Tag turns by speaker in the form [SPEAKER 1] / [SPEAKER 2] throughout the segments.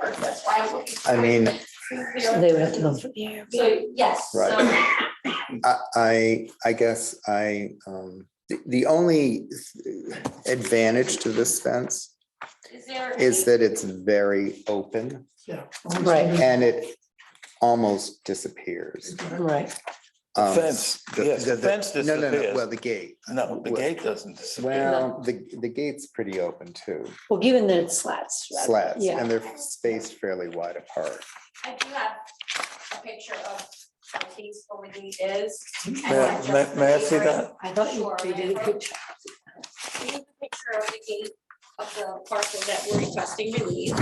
[SPEAKER 1] was looking for.
[SPEAKER 2] I mean,
[SPEAKER 3] They would have to go through.
[SPEAKER 1] So, yes, so.
[SPEAKER 2] Right. I, I, I guess I, um, the, the only advantage to this fence
[SPEAKER 1] Is there?
[SPEAKER 2] is that it's very open
[SPEAKER 3] Right,
[SPEAKER 2] and it almost disappears.
[SPEAKER 3] right.
[SPEAKER 2] Um,
[SPEAKER 4] Fence,
[SPEAKER 2] the-
[SPEAKER 4] yes,
[SPEAKER 2] the-
[SPEAKER 4] the fence
[SPEAKER 2] No, no, no, well,
[SPEAKER 4] disappears.
[SPEAKER 2] the gate.
[SPEAKER 4] No, the gate doesn't disappear.
[SPEAKER 2] Well, the, the gate's pretty open too,
[SPEAKER 3] Well, given that it's slats. rather-
[SPEAKER 2] slats,
[SPEAKER 3] Yeah,
[SPEAKER 2] and they're spaced fairly wide apart.
[SPEAKER 1] I do have a picture of the case where the gate is. and
[SPEAKER 4] May-
[SPEAKER 1] just
[SPEAKER 4] may- may I
[SPEAKER 1] the
[SPEAKER 4] see
[SPEAKER 1] neighbors.
[SPEAKER 4] that?
[SPEAKER 3] I thought you
[SPEAKER 1] Sure,
[SPEAKER 3] they did a good job.
[SPEAKER 1] Here's a Picture of the gate of the parcel that we're requesting relief.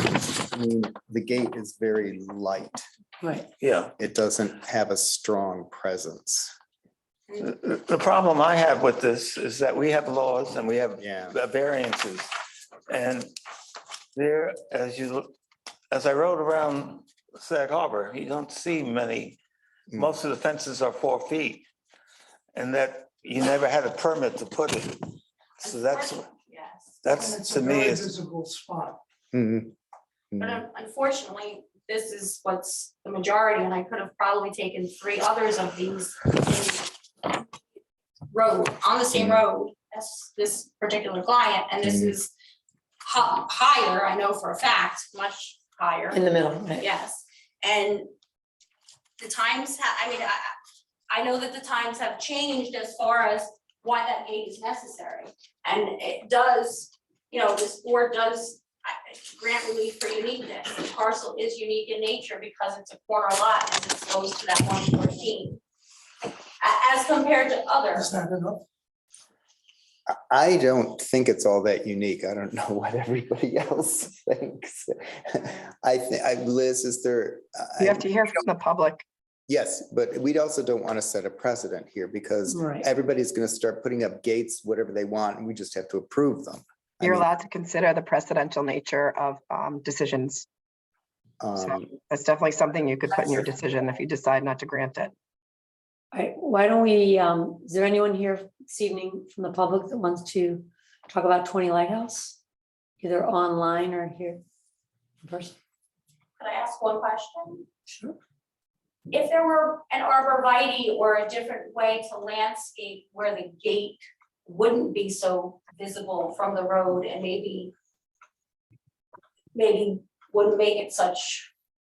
[SPEAKER 2] I mean, the gate is very light.
[SPEAKER 3] Right,
[SPEAKER 4] Yeah.
[SPEAKER 2] It doesn't have a strong presence.
[SPEAKER 4] The the problem I have with this is that we have laws and we have uh,
[SPEAKER 2] Yeah.
[SPEAKER 4] variances. And there, as you, look, as I rode around Sag Harbor, you don't see many.
[SPEAKER 2] Mm.
[SPEAKER 4] Most of the fences are four feet. And that you never had a permit to put it. So that's,
[SPEAKER 1] Yes.
[SPEAKER 4] that's to me is,
[SPEAKER 5] Visible spot.
[SPEAKER 2] Mhm.
[SPEAKER 1] But
[SPEAKER 2] Mhm.
[SPEAKER 1] un- unfortunately, this is what's the majority, and I could have probably taken three others of these. in Road, on the same road as this particular client, and this
[SPEAKER 2] Mhm.
[SPEAKER 1] is hi- higher, I know for a fact, much higher.
[SPEAKER 3] in the middle, right.
[SPEAKER 1] Yes, and the times, ha- I mean, I, I- I know that the times have changed as far as why that gate is necessary. And it does, you know, this board does I- grant relief for uniqueness. The parcel is unique in nature because it's a corner lot and it's close to that one fourteen. As compared to
[SPEAKER 5] Is
[SPEAKER 1] others,
[SPEAKER 5] that enough?
[SPEAKER 2] I don't think it's all that unique. I don't know what everybody else thinks. I think, I, Liz, is there? I-
[SPEAKER 6] You have to hear from the public.
[SPEAKER 2] Yes, but we also don't want to set a precedent here because
[SPEAKER 6] Mm-hmm.
[SPEAKER 3] Right,
[SPEAKER 2] everybody's going to start putting up gates, whatever they want, and we just have to approve them. I
[SPEAKER 6] You're
[SPEAKER 2] mean,
[SPEAKER 6] allowed to consider the precedential nature of um, decisions.
[SPEAKER 2] um,
[SPEAKER 6] That's definitely something you could put in your decision if you decide not to grant it.
[SPEAKER 3] All right, why don't we, um, is there anyone here this evening from the public that wants to talk about twenty Lighthouse? Either online or here? in person?
[SPEAKER 1] could I ask one question?
[SPEAKER 3] Sure.
[SPEAKER 1] If there were an arborvitae or a different way to landscape where the gate wouldn't be so visible from the road and maybe maybe wouldn't make it such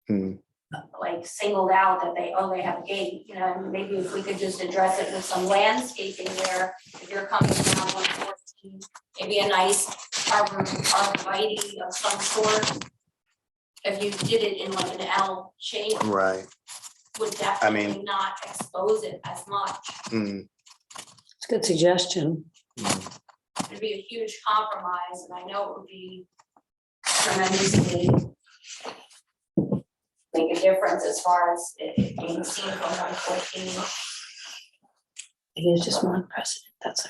[SPEAKER 2] hmm.
[SPEAKER 1] like singled out that they, oh, they have a gate, you know, and maybe if we could just address it with some landscaping where if you're coming down one fourteen, maybe a nice arbor, arborvitae of some sort. If you did it in like an L shape,
[SPEAKER 2] Right.
[SPEAKER 1] would
[SPEAKER 2] I mean-
[SPEAKER 1] definitely not expose it as much.
[SPEAKER 2] hmm.
[SPEAKER 3] It's a good suggestion.
[SPEAKER 2] mm.
[SPEAKER 1] It'd be a huge compromise and I know it would be tremendously make a difference as far as it being seen from one fourteen.
[SPEAKER 3] It is just one precedent, that's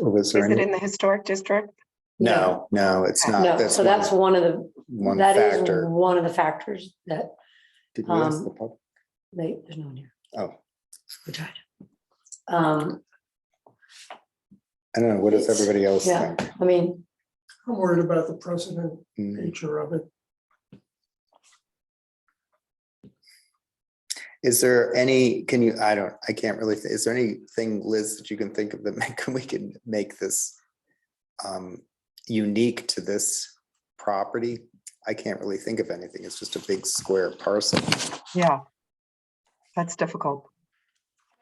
[SPEAKER 3] all.
[SPEAKER 2] Was there
[SPEAKER 6] Is it
[SPEAKER 2] any?
[SPEAKER 6] in the historic district?
[SPEAKER 2] No, no, it's not.
[SPEAKER 3] No, so that's one of the,
[SPEAKER 2] Ah, One
[SPEAKER 3] that is
[SPEAKER 2] factor.
[SPEAKER 3] one of the factors that
[SPEAKER 2] Did we ask
[SPEAKER 3] um,
[SPEAKER 2] the pub-
[SPEAKER 3] they, there's no one here.
[SPEAKER 2] Oh.
[SPEAKER 3] We tried. Um,
[SPEAKER 2] I don't know. What does everybody else
[SPEAKER 3] yeah.
[SPEAKER 2] think?
[SPEAKER 3] I mean,
[SPEAKER 5] I'm worried about the precedent
[SPEAKER 2] Hmm.
[SPEAKER 5] nature of it.
[SPEAKER 2] Is there any, can you, I don't, I can't really, thi- is there anything, Liz, that you can think of that make- we can make this um unique to this property? I can't really think of anything. It's just a big square parcel.
[SPEAKER 6] Yeah. That's difficult.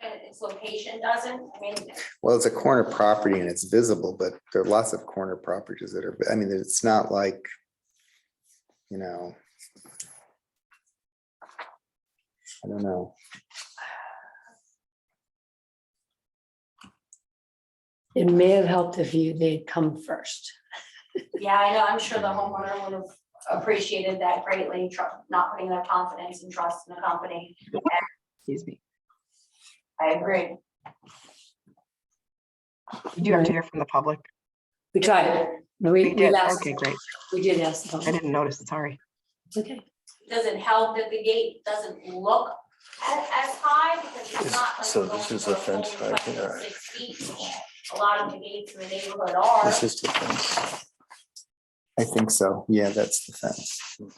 [SPEAKER 1] And its location doesn't, I mean,
[SPEAKER 2] Well, it's a corner property and it's visible, but there are lots of corner properties that are, I mean, it's not like, you know. I don't know.
[SPEAKER 3] it may have helped if you, they'd come first.
[SPEAKER 1] yeah, I know, I'm sure the homeowner would have appreciated that greatly, tru- not putting their confidence and trust in the company.
[SPEAKER 6] Excuse me.
[SPEAKER 1] I agree.
[SPEAKER 6] You have to hear from the public.
[SPEAKER 3] We tried. No, we,
[SPEAKER 6] You
[SPEAKER 3] we
[SPEAKER 6] did.
[SPEAKER 3] asked,
[SPEAKER 6] Okay, great.
[SPEAKER 3] we did ask. the
[SPEAKER 6] I
[SPEAKER 3] public.
[SPEAKER 6] didn't notice. Sorry.
[SPEAKER 3] Okay.
[SPEAKER 1] Doesn't help that the gate doesn't look as, as high because it's
[SPEAKER 4] Is-
[SPEAKER 1] not like.
[SPEAKER 4] so
[SPEAKER 1] you're
[SPEAKER 4] this
[SPEAKER 1] going
[SPEAKER 4] is
[SPEAKER 1] for
[SPEAKER 4] a fence
[SPEAKER 1] full
[SPEAKER 4] right
[SPEAKER 1] 26 feet.
[SPEAKER 4] here.
[SPEAKER 1] A lot of the gates in the neighborhood are.
[SPEAKER 4] this is the fence.
[SPEAKER 2] I think so. Yeah, that's the thing.